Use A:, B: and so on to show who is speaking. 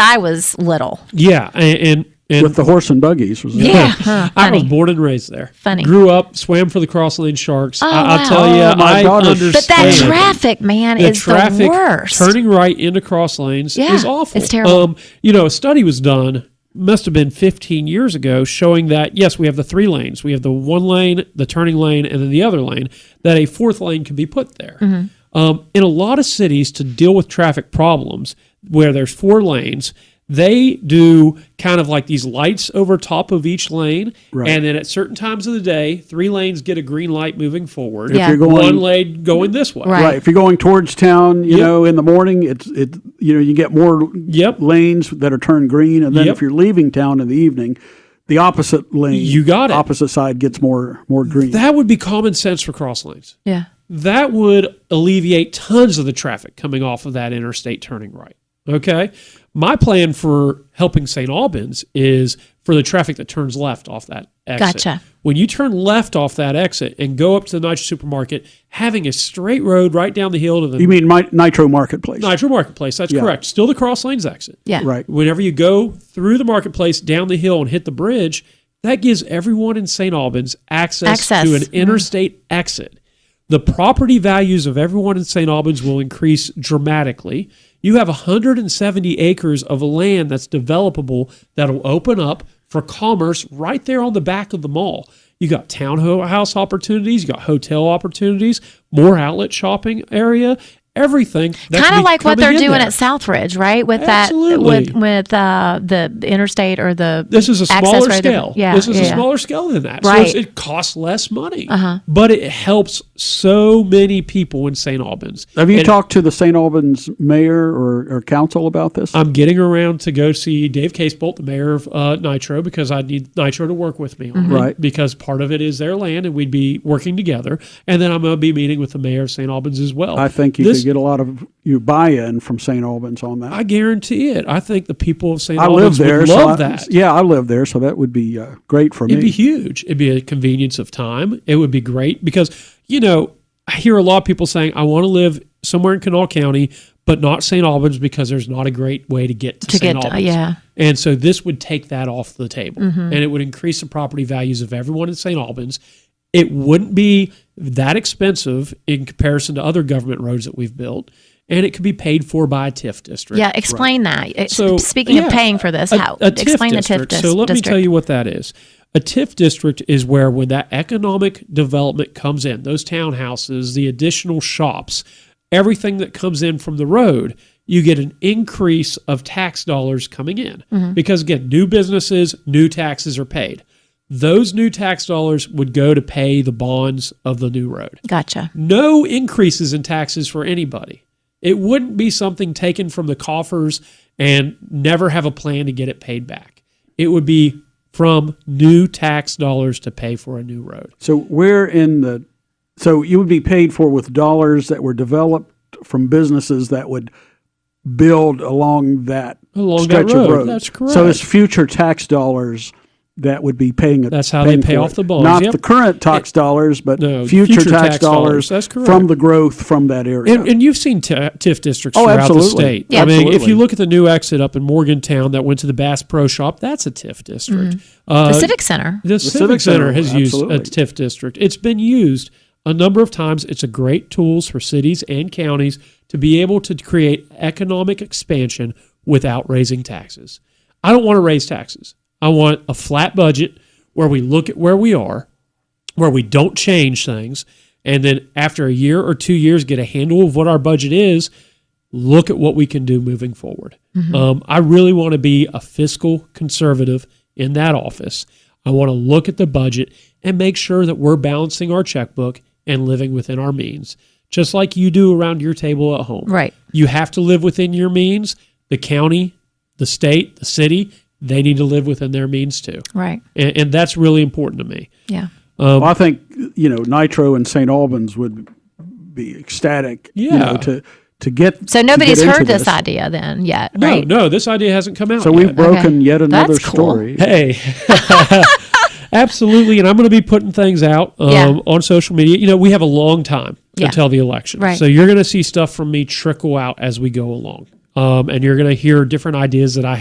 A: I was little.
B: Yeah, and and, and
C: with the horse and buggies. Was
A: Yeah.
C: it?
A: Huh,
B: I was
A: funny.
B: born and raised there.
A: Funny.
B: Grew up, swam for the Cross Lane Sharks.
A: Oh,
B: I,
A: wow.
B: I'll tell you,
C: Oh, my
B: I
C: daughter's-
B: understand.
A: But that traffic, man,
B: the
A: is the
B: traffic
A: worst.
B: turning right into cross lanes
A: Yeah,
B: is awful.
A: it's terrible.
B: Um, you know, a study was done, must have been 15 years ago, showing that yes, we have the three lanes. We have the one lane, the turning lane, and then the other lane. That a fourth lane could be put there.
A: Mm-hmm.
B: Um, in a lot of cities, to deal with traffic problems, where there's four lanes. They do kind of like these lights over top of each lane.
C: Right.
B: And then at certain times of the day, three lanes get a green light moving forward.
A: Yeah.
C: If you're going
B: One lane going this way.
A: Right.
C: right. if you're going towards town, you
B: Yep.
C: know, in the morning, it's it you know you get more
B: Yep.
C: lanes that are turned green, and then
B: Yep.
C: if you're leaving town in the evening, the opposite lane,
B: You got it.
C: opposite side gets more more green.
B: That would be common sense for cross lanes.
A: yeah.
B: That would alleviate tons of the traffic coming off of that interstate turning right. Okay. My plan for helping St. Albans is for the traffic that turns left off that exit.
A: Gotcha.
B: When you turn left off that exit and go up to the Nitro Supermarket, having a straight road right down the hill to the
C: you mean my, Nitro Marketplace?
B: Nitro Marketplace, that's
C: Yeah.
B: correct. Still the cross lanes exit.
A: Yeah.
C: Right.
B: Whenever you go through the marketplace, down the hill, and hit the bridge, that gives everyone in St. Albans access,
A: Access.
B: to an
A: Mhm.
B: interstate exit. The property values of everyone in St. Albans will increase dramatically. You have 170 acres of land that's developable that'll open up for commerce right there on the back of the mall. You got townhouse opportunities, you got hotel opportunities, more outlet shopping area, everything. that
A: Kind
B: could
A: of
B: be
A: like what they're
B: coming in
A: doing
B: there.
A: at Southridge, right? With
B: Absolutely.
A: that, with with uh, the interstate or the
B: This is a
A: access
B: smaller
A: road.
B: scale.
A: Yeah,
B: this is
A: yeah.
B: a smaller scale than that.
A: Right. Uh-huh.
B: So it's, it costs less money, but it helps so many people in St. Albans.
C: Have you
B: And
C: talked to the St. Albans mayor or, or council about this?
B: I'm getting around to go see Dave Casebolt, the mayor of uh, Nitro, because I need Nitro to work with me on
A: Mm-hmm.
B: it,
C: Right.
B: Because part of it is their land, and we'd be working together. And then I'm going to be meeting with the mayor of St. Albans as well.
C: I think you
B: This-
C: could get a lot of you buy-in from St. Albans on that.
B: I guarantee it. I think the people of St.
C: I
B: Albans
C: live there.
B: would
C: so
B: love
C: I-
B: that.
C: Yeah, I live there, so that would be uh, great for
B: It'd
C: me.
B: be huge. It'd be a convenience of time. It would be great because, you know, I hear a lot of people saying, I want to live somewhere in Kanawha County, but not St. Albans because there's not a great way to get to,
A: To
B: St.
A: get-
B: Albans.
A: yeah. Mm-hmm.
B: And so this would take that off the table and it would increase the property values of everyone in St. Albans. It wouldn't be that expensive in comparison to other government roads that we've built. And it could be paid for by a TIF district.
A: Yeah, explain that. It's-
B: So,
A: Speaking
B: yeah,
A: of paying for this,
B: a-
A: how
B: a TIF
A: explain the TIF
B: district.
A: dis-
B: So let
A: district.
B: me tell you what that is. A TIF district is where when that economic development comes in, those townhouses, the additional shops, everything that comes in from the road, you get an increase of tax dollars coming in.
A: Mm-hmm.
B: Because again, new businesses, new taxes are paid. Those new tax dollars would go to pay the bonds of the new road
A: Gotcha.
B: no increases in taxes for anybody. It wouldn't be something taken from the coffers and never have a plan to get it paid back. It would be from new tax dollars to pay for a new road.
C: So where in the so you would be paid for with dollars that were developed from businesses that would build along that
B: Along that
C: stretch
B: road.
C: of road.
B: That's
C: So it's
B: correct.
C: future tax dollars that would be paying it.
B: That's how they
C: paying
B: pay
C: for
B: off
C: it.
B: the bonds,
C: Not
B: yep.
C: the current tax dollars, but
B: No,
C: future,
B: future
C: tax,
B: tax dollars.
C: dollars.
B: That's correct.
C: From the growth from that area.
B: And, and you've seen t- TIF districts
C: Oh,
B: throughout the
C: absolutely.
B: state.
A: Yeah.
B: I mean, if
C: Absolutely.
B: you look at the new exit up in Morgantown that went to the Bass Pro Shop, that's a TIF district. Uh,
A: The Civic Center.
B: The, Civic, Center, has used a
C: absolutely.
B: TIF district. It's been used a number of times. It's a great tools for cities and counties to be able to create economic expansion without raising taxes. I don't want to raise taxes. I want a flat budget where we look at where we are, where we don't change things, and then after a year or two years get a handle of what our budget is, look at what we can do moving forward. Um, I really want to be a fiscal conservative in that office. I want to look at the budget and make sure that we're balancing our checkbook and living within our means, just like you do around your table at home.
A: Right.
B: You have to live within your means. The county, the state, the city, they need to live within their means too.
A: Right.
B: And, and that's really important to me.
A: Yeah.
C: Well, I think you know Nitro and St. Albans would be ecstatic. you know,
B: Yeah.
C: to to get
A: So
C: to
A: nobody's
C: get into
A: heard this idea then yet,
B: No,
A: right?
B: no, this idea hasn't come out.
C: So we've
B: yet.
C: broken yet
A: That's
C: another
A: cool.
C: story.
B: Hey. Absolutely. And I'm going to be putting things out um,
A: Yeah.
B: on social media. You know, we have a long time
A: Yeah.
B: until the election.
A: Right.
B: So you're going to see stuff from me trickle out as we go along. Um, and you're going to hear different ideas that I